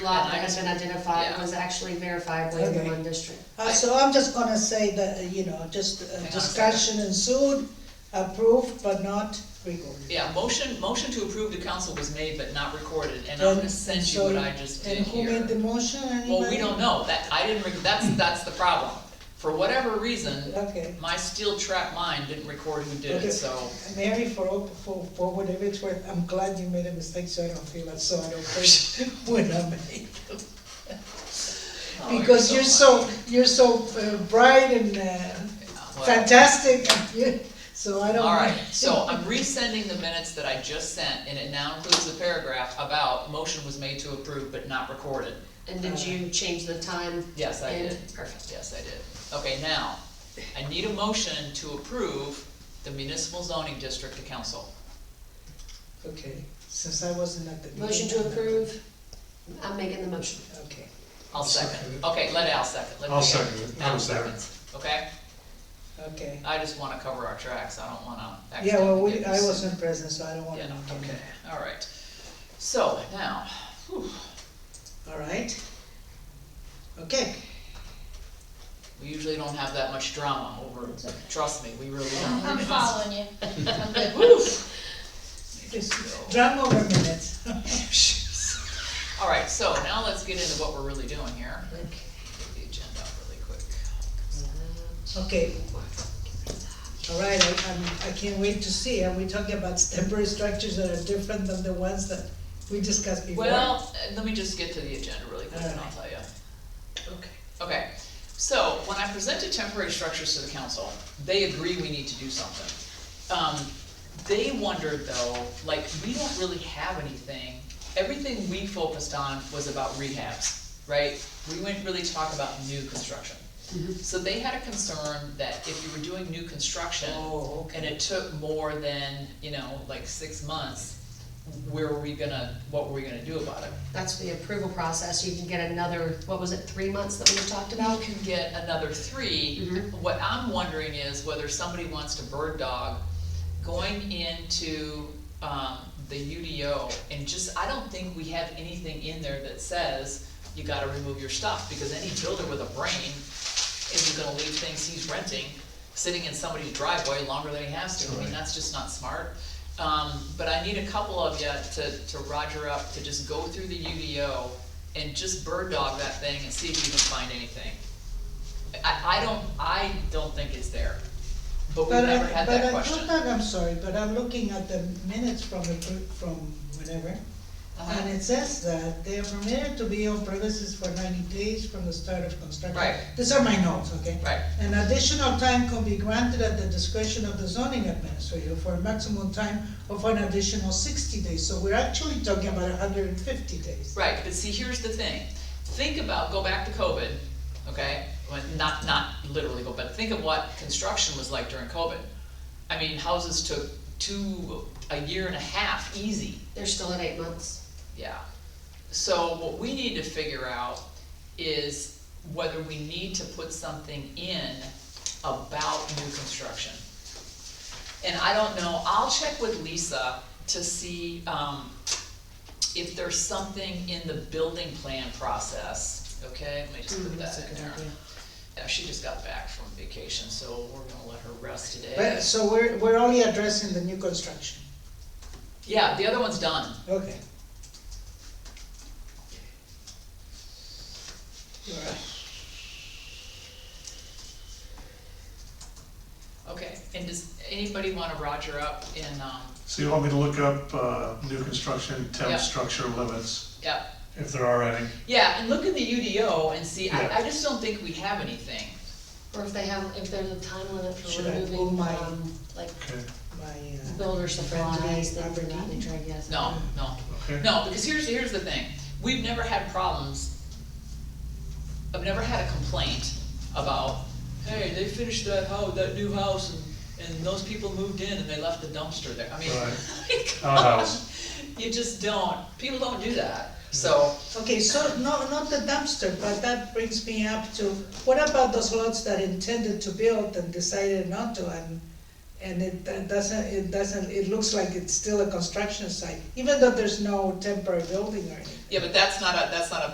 lot that has been identified Yeah. was actually verifiably in the Okay. one district. Uh, so I'm just gonna say that, uh, you know, just uh, on a discussion ensued, approved but not recorded. Yeah, motion, motion to approve the council was made but not recorded, and I'm gonna send you what I just did And who here. made the motion, anybody? Well, we don't know, that, I didn't, rec- that's, that's the problem. For whatever reason, Okay, my steel trap mind didn't record who did Okay. it, so. Mary, for, all- for, for whatever it's worth, I'm glad you made a mistake, so I don't feel that sorry for when I made. oh, Because you're so, you're so uh, bright and uh, Well, fantastic, you- so I don't. All right, so I'm resending the minutes that I just sent, and it now includes the paragraph about motion was made to approve but not recorded. And did you change the time? Yes, I And- did. Perfect. Yes, I did. Okay, now, I need a motion to approve the municipal zoning district to council. Okay, since I wasn't at the. meeting. Motion to approve, I'm making the motion. Okay. I'll second. Okay, let Al second. Let I'll me- second it. Al I'll second. seconds, okay? Okay. I just wanna cover our tracks, I don't wanna Yeah, well, accidentally we, get I this- wasn't present, so I don't wanna. Yeah, know. okay, all right. So, now, All right. Okay, we usually don't have that much drama over, trust me, we really don't. Uh-huh. I'm following you. I'm good. Woo. drama over minutes. All right, so now let's get into what we're really doing here. Get The agenda up really quick. Okay. All right, I, I'm, I can't wait to see, are we talking about temporary structures that are different than the ones that we discussed before? Well, uh, let me just get to the agenda really quick and I'll tell you. Okay. Okay, so when I presented temporary structures to the council, they agree we need to do something. Um, they wondered though, like, we don't really have anything, everything we focused on was about rehabs, right? We wouldn't really talk about new construction. Mm-hmm. So they had a concern that if you were doing new construction Oh, and okay. it took more than, you know, like six months, where were we gonna, what were we gonna do about it? That's the approval process, you can get another, what was it, three months that we talked Now about? can get another three. Mhm. What I'm wondering is whether somebody wants to bird dog going into, um, the UDO and just, I don't think we have anything in there that says you gotta remove your stuff, because any builder with a brain isn't gonna leave things he's renting sitting in somebody's driveway longer than he has to. I mean, Right. that's just not smart. Um, but I need a couple of you to, to roger up, to just go through the UDO and just bird dog that thing and see if you can find anything. I, I don't, I don't think it's there, but we've But I, never had but that I thought question. that, I'm sorry, but I'm looking at the minutes from the, pre- from whatever, Uh-huh. and it says that they are permitted to be on premises for ninety days from the start of construction. Right. These are my notes, okay? Right, An additional time can be granted at the discretion of the zoning administrator for a maximum time of an additional sixty days, so we're actually talking about hundred and fifty days. right, but see, here's the thing, think about, go back to COVID, okay? Well, not, not literally, go, but think of what construction was like during COVID. I mean, houses took two, a year and a half, easy. They're still at eight months. Yeah. So what we need to figure out is whether we need to put something in about new construction. And I don't know, I'll check with Lisa to see, um, if there's something in the building plan process, okay? Let me Mm, just put that in there. Yeah, she just got back from vacation, so we're gonna let her rest today. But, so we're, we're only addressing the new construction, Yeah, the other one's done. okay. All right. Okay, and does anybody wanna Roger up in, um, So you want me to look up, uh, new construction Yeah. temp structure limits, yeah, if there are any? Yeah, and look in the UDO and see, I, Yeah. I just don't think we have anything. Or if they have, if there's a time limit for Should I pull removing, my- um, like Okay, My, uh, builder supplies, things of that Aberdeen? nature, I guess. No, no, okay. no, because here's, here's the thing, we've never had problems. I've never had a complaint about, hey, they finished that house, that new house, and, and those people moved in and they left the dumpster there, I mean. Right. Outhouse. You just don't, people don't do that, Hmm. so, okay, so, no, not the dumpster, but that brings me up to, what about those lots that intended to build and decided not to, and, and it that doesn't, it doesn't, it looks like it's still a construction site, even though there's no temporary building or anything. yeah, but that's not a, that's not a